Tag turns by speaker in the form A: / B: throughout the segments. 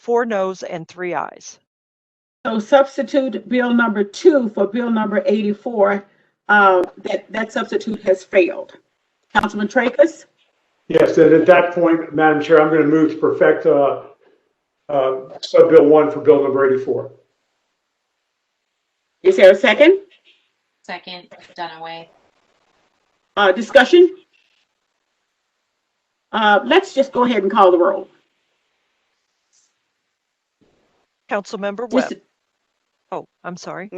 A: four noes and three ayes.
B: So substitute bill number two for bill number eighty-four, uh, that, that substitute has failed. Councilman Tracus,
C: Yes, and at that point, Madam Chair, I'm going to move to perfect uh, uh, Sub-Bill 1 for Bill number 84.
B: is there a second?
D: Second, Dunaway.
B: Uh, discussion? Uh, let's just go ahead and call the roll.
A: Councilmember
B: Just-
A: Webb. Oh, I'm sorry.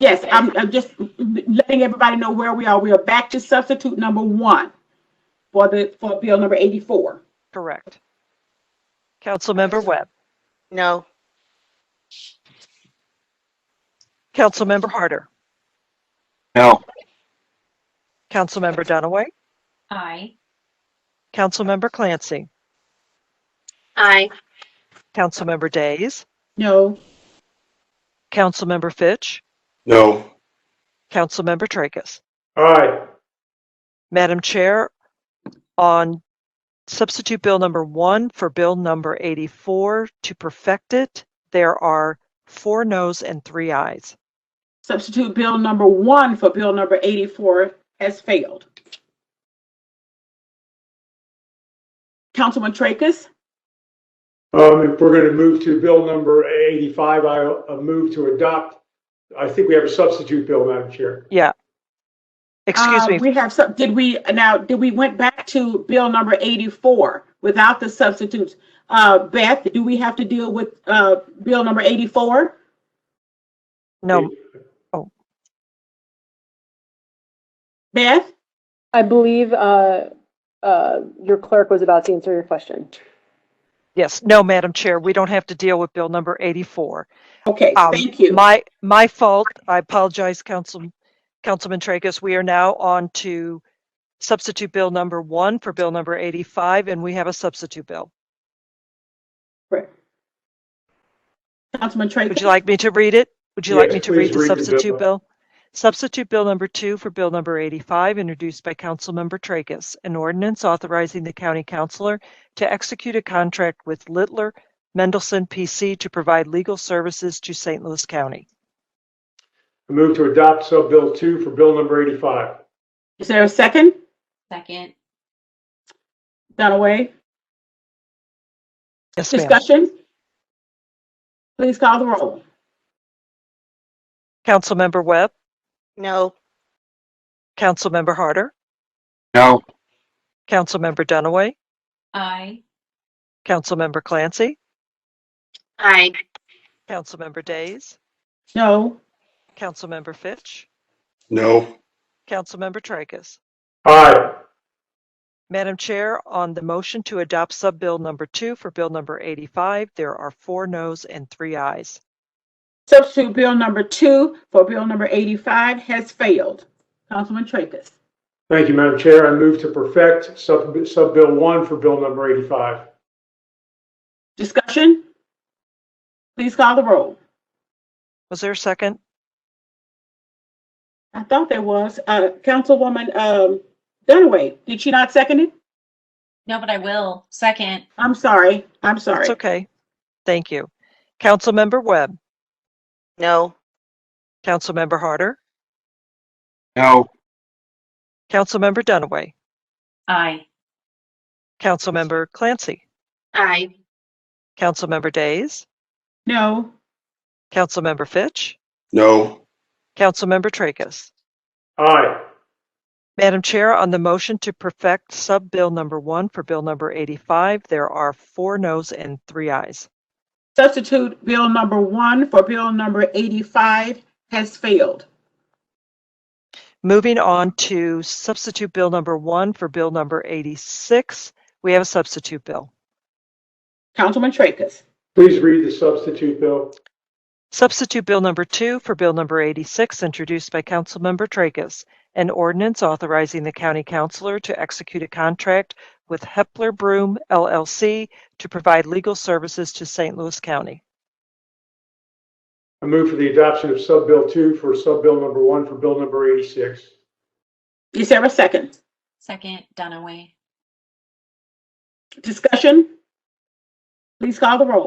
B: Yes, I'm, I'm just letting everybody know where we are. We are back to substitute number one for the, for bill number eighty-four.
A: Correct. Councilmember Webb.
E: No.
A: Councilmember Harder.
F: No.
A: Councilmember Dunaway.
D: Aye.
A: Councilmember Clancy.
E: Aye.
A: Councilmember Days.
B: No,
A: Councilmember Fitch.
F: No.
A: Councilmember Tracus.
C: Aye,
A: Madam Chair, on substitute bill number one for bill number 84 to perfect it, there are four noes and three ayes.
B: substitute bill number one for bill number eighty-four has failed. Councilman Tracus,
C: Um, if we're going to move to Bill number 85, I uh, move to adopt, I think we have a substitute bill, Madam Chair.
A: Excuse
B: uh,
A: me,
B: We have some, did we, now, did we went back to bill number eighty-four without the substitutes? Uh, Beth, do we have to deal with, uh, bill number eighty-four?
A: no,
B: Beth?
G: I believe uh, uh, your clerk was about to answer your question.
A: yes, no, Madam Chair, we don't have to deal with bill number 84.
B: Okay,
A: Um,
B: thank you.
A: My, my fault. I apologize, Council, Councilman Tracus. We are now on to substitute bill number one for bill number 85, and we have a substitute bill.
B: Councilman Tracus?
A: Would you like me to read it? Would you like
C: Yes,
A: me to
C: please
A: read the
C: read the bill.
A: substitute bill? Substitute Bill Number 2 for Bill Number 85, introduced by Councilmember Tracus, an ordinance authorizing the county councilor to execute a contract with Littler Mendelson PC to provide legal services to St. Louis County.
C: I move to adopt Sub-Bill 2 for Bill number 85.
B: Is there a second?
D: Second,
B: Dunaway,
A: Yes, ma'am.
B: discussion? Please call the roll.
A: Councilmember Webb,
E: No.
A: Councilmember Harder,
F: No.
A: Councilmember Dunaway,
D: aye.
A: Councilmember Clancy,
E: Aye.
A: Councilmember Days,
B: No,
A: Councilmember Fitch,
F: No.
A: Councilmember Tracus.
C: Aye,
A: Madam Chair, on the motion to adopt sub-bill number two for bill number 85, there are four noes and three ayes.
B: substitute bill number two for bill number eighty-five has failed. Councilman Tracus,
C: thank you, Madam Chair. I move to perfect Sub- Sub-Bill 1 for Bill number 85.
B: discussion? Please call the roll.
A: Was there a second?
B: I thought there was, uh, Councilwoman, um, Dunaway, did she not second it?
D: No, but I will. Second,
B: I'm sorry, I'm sorry.
A: It's okay. Thank you. Councilmember Webb,
E: No.
A: Councilmember Harder,
F: No.
A: Councilmember Dunaway,
D: aye.
A: Councilmember Clancy,
E: Aye.
A: Councilmember Days,
B: No,
A: Councilmember Fitch,
F: No.
A: Councilmember Tracus.
C: Aye,
A: Madam Chair, on the motion to perfect sub-bill number one for bill number 85, there are four noes and three ayes.
B: substitute bill number one for bill number eighty-five has failed.
A: Moving on to substitute bill number one for bill number 86, we have a substitute bill.
B: Councilman Tracus,
C: please read the substitute bill.
A: Substitute bill number two for bill number 86, introduced by Councilmember Tracus, an ordinance authorizing the county councilor to execute a contract with Hepler Broom LLC to provide legal services to St. Louis County.
C: I move for the adoption of Sub-Bill 2 for Sub-Bill number 1 for Bill number 86.
B: is there a second?
D: Second, Dunaway.
B: Discussion? Please call the roll.